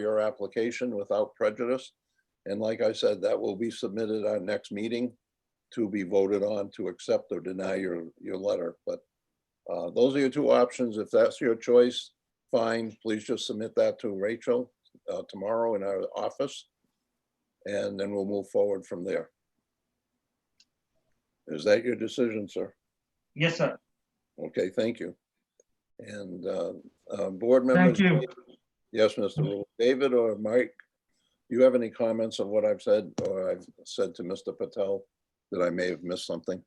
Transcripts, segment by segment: your application without prejudice. And like I said, that will be submitted our next meeting to be voted on to accept or deny your, your letter. But uh, those are your two options. If that's your choice, fine, please just submit that to Rachel uh, tomorrow in our office. And then we'll move forward from there. Is that your decision, sir? Yes, sir. Okay, thank you. And uh, uh, board Thank members. you. Yes, Mr. Rule. David or Mike, you have any comments on what I've said or I've said to Mr. Patel that I may have missed something?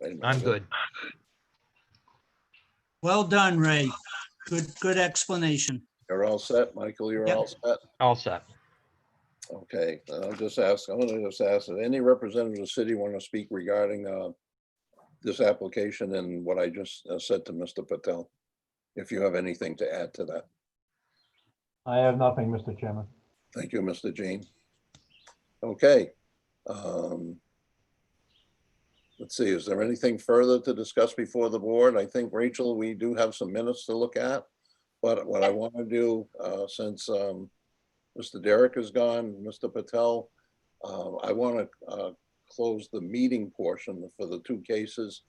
Wait a minute. I'm good. Well done, Ray. Good, good explanation. You're all set, Michael, you're Yep. all set? All set. Okay, and I'll just ask, I'm gonna just ask, if any representative of the city want to speak regarding uh, this application and what I just uh, said to Mr. Patel? If you have anything to add to that. I have nothing, Mr. Chairman. Thank you, Mr. Jean. Okay. um, Let's see, is there anything further to discuss before the board? I think, Rachel, we do have some minutes to look at. But what I want to do, uh, since um, Mr. Derek is gone, Mr. Patel, uh, I want to close the meeting portion for the two cases,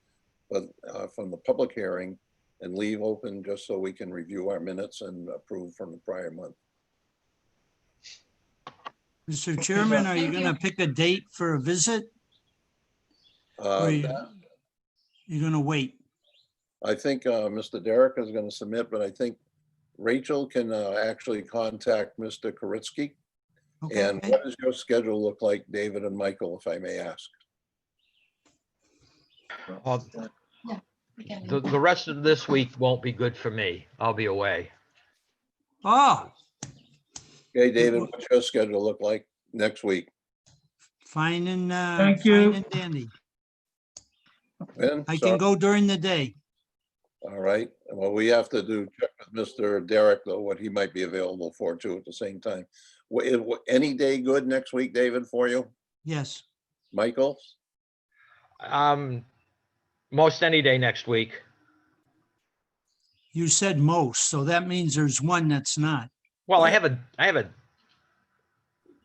but uh, from the public hearing and leave open just so we can review our minutes and approve from the prior month. Mr. Chairman, are you Thank you. gonna pick a date for a visit? Uh, Or you- that- you're gonna wait? I think uh, Mr. Derek is going to submit, but I think Rachel can uh, actually contact Mr. Koritsky. And Okay. what does your schedule look like, David and Michael, if I may ask? Well, Again. the, the rest of this week won't be good for me. I'll be away. Oh, Okay, David, what's your schedule look like next week? fine and, uh. Thank fine you. and Dandy. Ben? I Sorry. can go during the day. All right, well, we have to do, check with Mr. Derek, though, what he might be available for too at the same time. Wha- eh, wha- Any day good next week, David, for you? Yes. Michael? Um, most any day next week. You said most, so that means there's one that's not. Well, I have a, I have a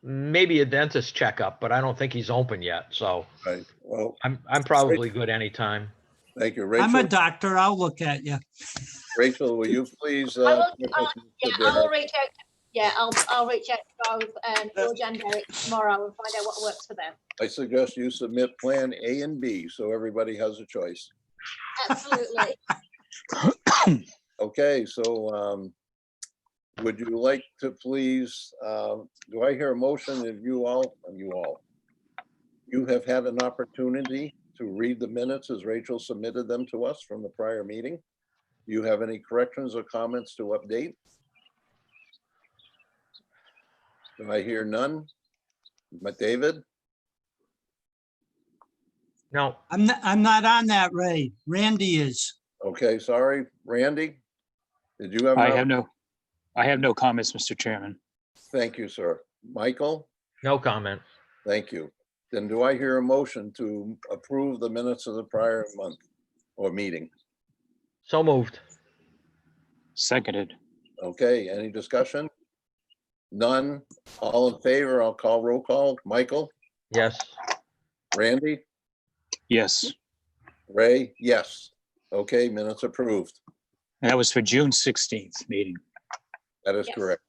maybe a dentist checkup, but I don't think he's open yet. So Right, well, I'm, I'm probably good anytime. thank you, I'm a Rachel. doctor. I'll look at you. Rachel, will you please? I will- uh, check I'll- with Mr. Yeah, Derek? I'll reach out, yeah, I'll, I'll reach out to both, um, George and Derek tomorrow and find out what works for them. I suggest you submit Plan A and B, so everybody has a choice. Absolutely. Okay, so um, would you like to please, um, do I hear a motion of you all, of you all? You have had an opportunity to read the minutes as Rachel submitted them to us from the prior meeting. Do you have any corrections or comments to update? Do I hear none? But David? No, I'm, not. I'm not on that, Ray. Randy is. Okay, sorry. Randy? Did you have? I another- have no, I have no comments, Mr. Chairman. Thank you, sir. Michael, no comment. thank you. Then do I hear a motion to approve the minutes of the prior month or meeting? So moved. Seconded. Okay, any discussion? None? All in favor? I'll call roll call. Michael, Yes. Randy, Yes. Ray, yes. Okay, minutes approved. That was for June 16th meeting. That is Yes. correct.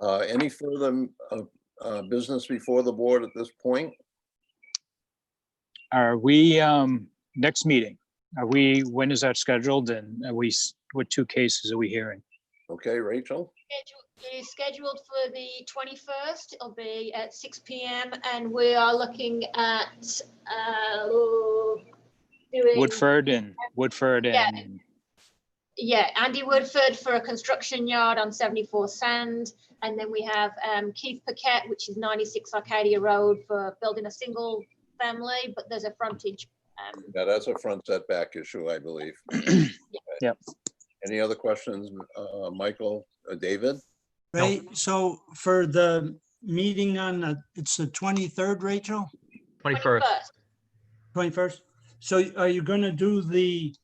Uh, Any further uh, uh, business before the board at this point? Are we, um, next meeting? Are we, when is that scheduled and are we, s- what two cases are we hearing? Okay, Rachel? Schedule- Is scheduled for the twenty-first, it'll be at six P M, and we are looking at, uh, doing. Woodford and Woodford Yeah. and, Yeah, Andy Woodford for a construction yard on 74 Sand. And then we have um, Keith Paquette, which is 96 Arcadia Road for building a single family, but there's a frontage. um, Yeah, that's a front setback issue, I believe. Yep. Any other questions, uh, Michael, uh, David? No. Ray, so for the meeting on, the it's the 23rd, Rachel? 21st. 21st. 21st? So are you going to do the